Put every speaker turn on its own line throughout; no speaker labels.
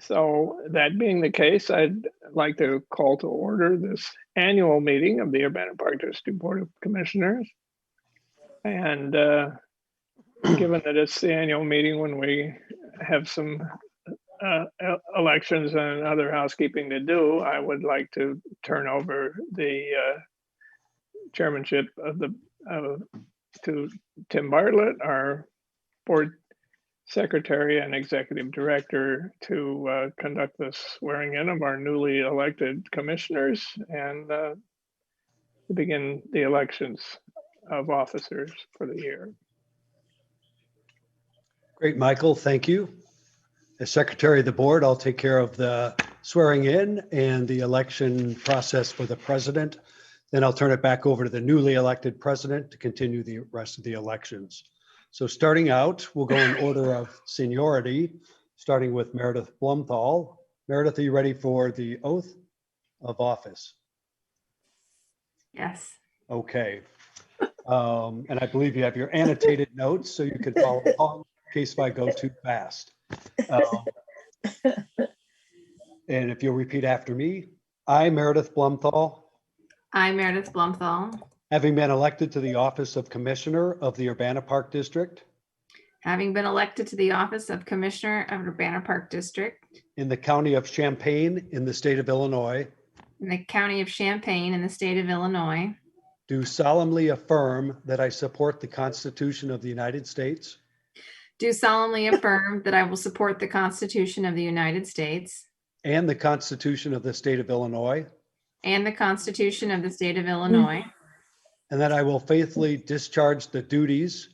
So, that being the case, I'd like to call to order this annual meeting of the Urbana Park District Board of Commissioners. And uh, given that it's the annual meeting when we have some uh, el- elections and other housekeeping to do, I would like to turn over the uh, chairmanship of the, of- to Tim Bartlett, our board secretary and executive director to uh, conduct the swearing in of our newly elected commissioners and uh, to begin the elections of officers for the year.
Great, Michael, thank you. As Secretary of the Board, I'll take care of the swearing in and the election process for the president. Then I'll turn it back over to the newly elected president to continue the rest of the elections. So starting out, we'll go in order of seniority, starting with Meredith Blumthal. Meredith, are you ready for the oath of office?
Yes.
Okay. Um, And I believe you have your annotated notes, so you can follow along in case if I go too fast. Um, And if you'll repeat after me, I, Meredith Blumthal,
I, Meredith Blumthal,
having been elected to the office of Commissioner of the Urbana Park District
having been elected to the office of Commissioner of Urbana Park District
in the county of Champaign in the state of Illinois,
in the county of Champaign in the state of Illinois,
do solemnly affirm that I support the Constitution of the United States
do solemnly affirm that I will support the Constitution of the United States
and the Constitution of the state of Illinois,
and the Constitution of the state of Illinois,
and that I will faithfully discharge the duties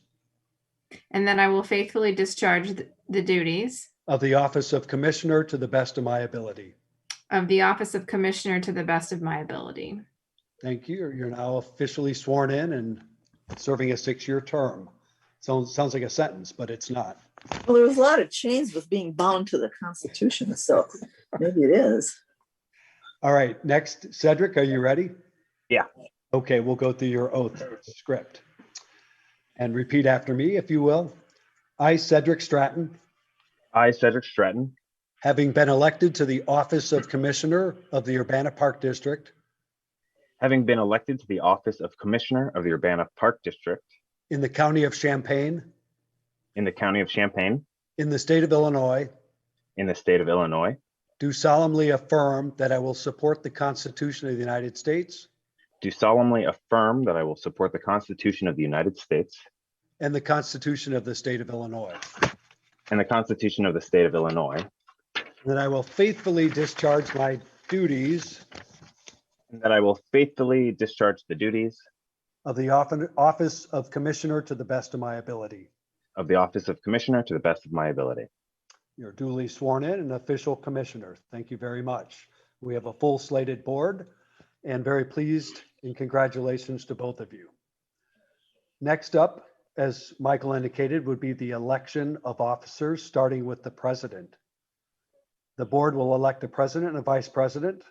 and that I will faithfully discharge th- the duties
Of the office of Commissioner to the best of my ability.
of the office of Commissioner to the best of my ability.
Thank you. You're now officially sworn in and serving a six-year term. Sounds, sounds like a sentence, but it's not.
Well, there was a lot of chains with being bound to the Constitution, so maybe it is.
All right, next, Cedric, are you ready?
Yeah.
Okay, we'll go through your oath script. And repeat after me, if you will. I, Cedric Stratton,
I, Cedric Stratton,
having been elected to the office of Commissioner of the Urbana Park District
having been elected to the office of Commissioner of the Urbana Park District
in the county of Champaign,
in the county of Champaign
in the state of Illinois,
in the state of Illinois,
Do solemnly affirm that I will support the Constitution of the United States
do solemnly affirm that I will support the Constitution of the United States
and the Constitution of the State of Illinois,
and the Constitution of the state of Illinois,
and that I will faithfully discharge my duties
and that I will faithfully discharge the duties
of the often- office of Commissioner to the best of my ability.
of the office of Commissioner to the best of my ability.
You're duly sworn in and official commissioner. Thank you very much. We have a full slated board and very pleased and congratulations to both of you. Next up, as Michael indicated, would be the election of officers, starting with the president. The board will elect a president and a vice president.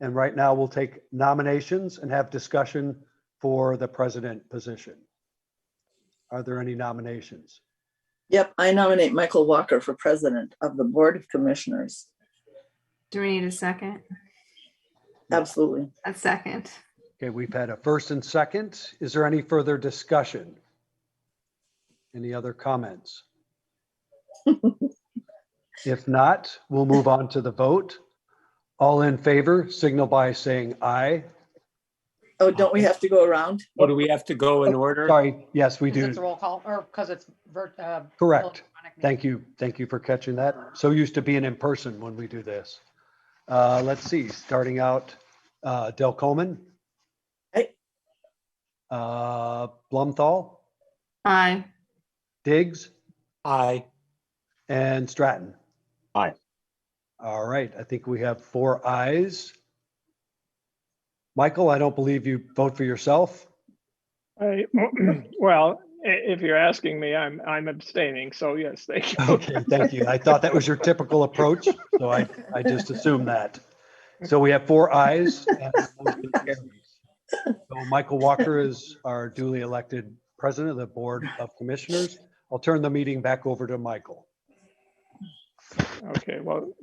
And right now we'll take nominations and have discussion for the president position. Are there any nominations?
Yep, I nominate Michael Walker for president of the Board of Commissioners.
Do we need a second?
Absolutely.
A second.
Okay, we've had a first and second. Is there any further discussion? Any other comments? If not, we'll move on to the vote. All in favor, signal by saying aye.
Oh, don't we have to go around?
Or do we have to go in order?
Sorry, yes, we
Because it's a
do.
roll call, or because it's virt, uh.
Correct.
electronic meeting.
Thank you. Thank you for catching that. So used to being in person when we do this. Uh, Let's see, starting out, uh, Del Coleman.
Aye.
Uh, Blumthal,
Aye.
Diggs.
Aye.
And Stratton?
Aye.
All right, I think we have four ayes. Michael, I don't believe you vote for yourself.
I, well, i- if you're asking me, I'm, I'm abstaining, so yes, thank you.
Okay, thank you. I thought that was your typical approach, so I, I just assumed that. So we have four ayes. and the motion carries. So Michael Walker is our duly elected president of the Board of Commissioners. I'll turn the meeting back over to Michael.
Okay, well,